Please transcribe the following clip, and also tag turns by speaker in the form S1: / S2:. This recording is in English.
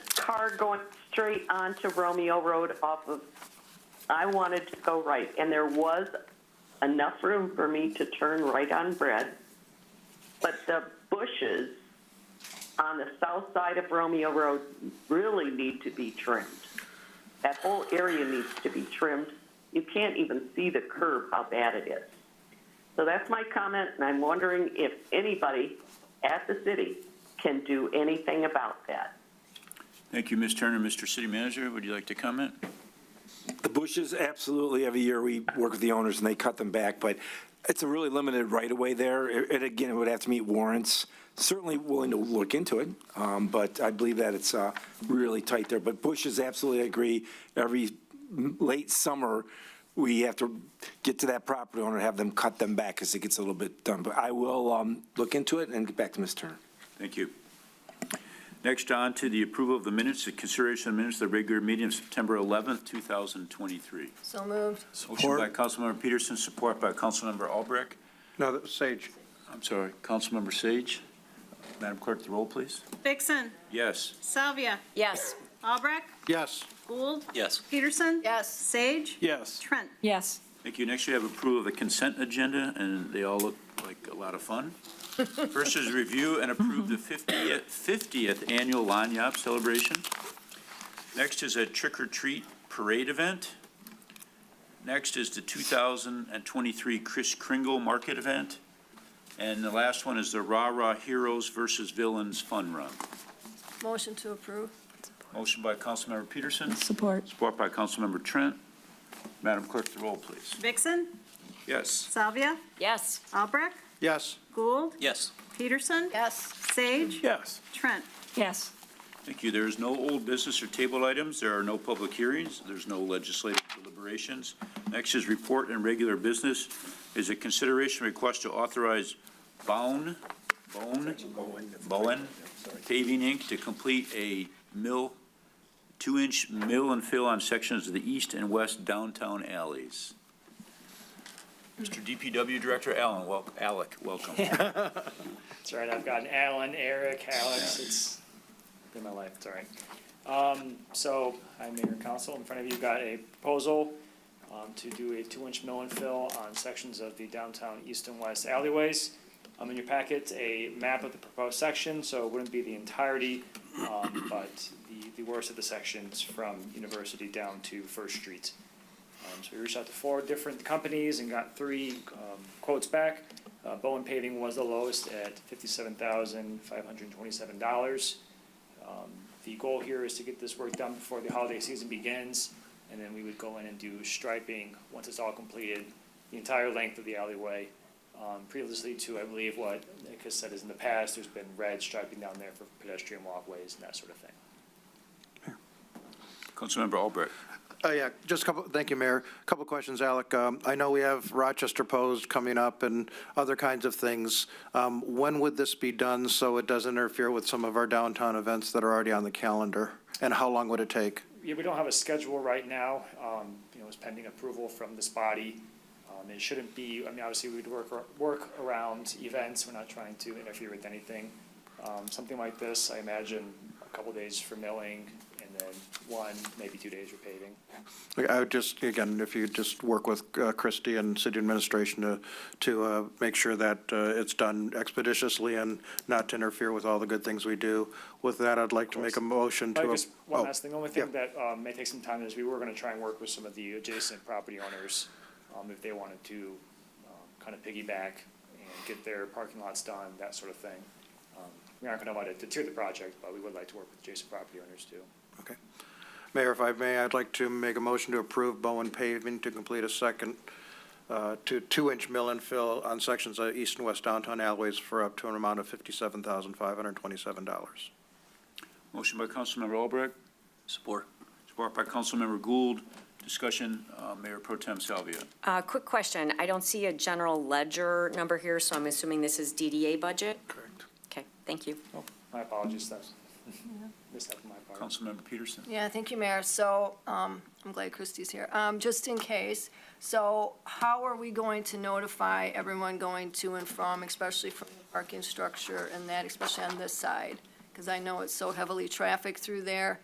S1: car going straight onto Romeo Road off of, I wanted to go right, and there was enough room for me to turn right on Bread. But the bushes on the south side of Romeo Road really need to be trimmed. That whole area needs to be trimmed. You can't even see the curb, how bad it is. So that's my comment, and I'm wondering if anybody at the city can do anything about that.
S2: Thank you, Ms. Turner. Mr. City Manager, would you like to comment?
S3: The bushes, absolutely, every year we work with the owners and they cut them back, but it's a really limited right-of-way there. It- And again, it would have to meet warrants. Certainly willing to look into it, um, but I believe that it's uh, really tight there. But bushes, absolutely, I agree. Every m- late summer, we have to get to that property owner, and have them cut them back as it gets a little bit done. But I will um, look into it and get back to Ms. Turner.
S2: Thank you. Next on to the approval of the minutes, the consideration of minutes of the regular meeting of September 11th, 2023.
S4: So moved.
S2: Motion by Councilmember Peterson, support by Councilmember Albrecht.
S5: No, that was Sage.
S2: I'm sorry, Councilmember Sage. Madam Clerk, the roll, please.
S6: Vixen,
S2: Yes.
S6: Salvia,
S4: Yes.
S6: Albrecht,
S5: Yes.
S6: Gould,
S7: Yes.
S6: Peterson.
S4: Yes.
S6: Sage,
S5: Yes.
S6: Trent.
S8: Yes.
S2: Thank you. Next, we have approval of the consent agenda, and they all look like a lot of fun. First is review and approve the 50th 50th Annual Lanyap Celebration. Next is a trick-or-treat parade event. Next is the 2023 Chris Kringle Market Event. And the last one is the Rah Rah Heroes versus Villains Fun Run.
S4: Motion to approve.
S2: Motion by Councilmember Peterson,
S8: Support.
S2: support by Councilmember Trent. Madam Clerk, the roll, please.
S6: Vixen,
S2: Yes.
S6: Salvia,
S4: Yes.
S6: Albrecht,
S5: Yes.
S6: Gould,
S7: Yes.
S6: Peterson,
S4: Yes.
S6: Sage,
S5: Yes.
S6: Trent.
S8: Yes.
S2: Thank you. There is no old business or table items. There are no public hearings. There's no legislative deliberations. Next is report and regular business. Is a consideration request to authorize Bowen, Bowen, Bowen Paving Inc. to complete a mill, two-inch mill and fill on sections of the east and west downtown alleys. Mr. DPW Director Allen, wel, Alec, welcome.
S9: It's all right, I've gotten Alan, Eric, Alex, it's been my life, it's all right. Um, so, I'm Mayor and Council, in front of you got a proposal, um, to do a two-inch mill and fill on sections of the downtown east and west alleyways. Um, in your packet, a map of the proposed section, so it wouldn't be the entirety, um, but the, the worst of the sections from University down to First Street. Um, so we reached out to four different companies and got three, um, quotes back. Uh, Bowen paving was the lowest at fifty-seven thousand, five hundred and twenty-seven dollars. Um, The goal here is to get this work done before the holiday season begins, and then we would go in and do striping, once it's all completed, the entire length of the alleyway. Um, previously to, I believe, what Nick has said is in the past, there's been red striping down there for pedestrian walkways and that sort of thing.
S2: Councilmember Albrecht.
S5: Oh, yeah, just a couple, thank you, Mayor. A Couple questions, Alec. Um, I know we have Rochester Post coming up and other kinds of things. Um, When would this be done so it doesn't interfere with some of our downtown events that are already on the calendar? And how long would it take?
S9: Yeah, we don't have a schedule right now. Um, you know, it's pending approval from this body. Um, it shouldn't be, I mean, obviously we'd work, ar- work around events. We're not trying to interfere with anything. Um, something like this, I imagine a couple days for milling and then one, maybe two days for paving.
S5: I would just, again, if you could just work with uh, Christie and city administration to, to uh, make sure that uh, it's done expeditiously and not to interfere with all the good things we do. With that, I'd like to make a motion to.
S9: Probably just one
S5: oh,
S9: last thing, The only thing that, um, may take some time is we were gonna try and work with some of the adjacent property owners, um, if they wanted to, um, kind of piggyback and get their parking lots done, that sort of thing. Um, We aren't gonna let it deter the project, but we would like to work with adjacent property owners too.
S5: Okay. Mayor, if I may, I'd like to make a motion to approve Bowen paving to complete a second, uh, to two-inch mill and fill on sections of east and west downtown alleyways for up to an amount of fifty-seven thousand five hundred twenty-seven dollars.
S2: Motion by Councilmember Albrecht.
S7: Support.
S2: Support by Councilmember Gould. Discussion, uh, Mayor Pro Tem Salvia.
S10: Uh, Quick question. I don't see a general ledger number here, so I'm assuming this is DDA budget?
S5: Correct.
S10: Okay, thank you.
S9: My apologies, that's, missed that on my part.
S2: Councilmember Peterson.
S4: Yeah, thank you, Mayor. So, um, I'm glad Christie's here. Um, just in case, so how are we going to notify everyone going to and from, especially from the parking structure and that, especially on this side? Because I know it's so heavily trafficked through there.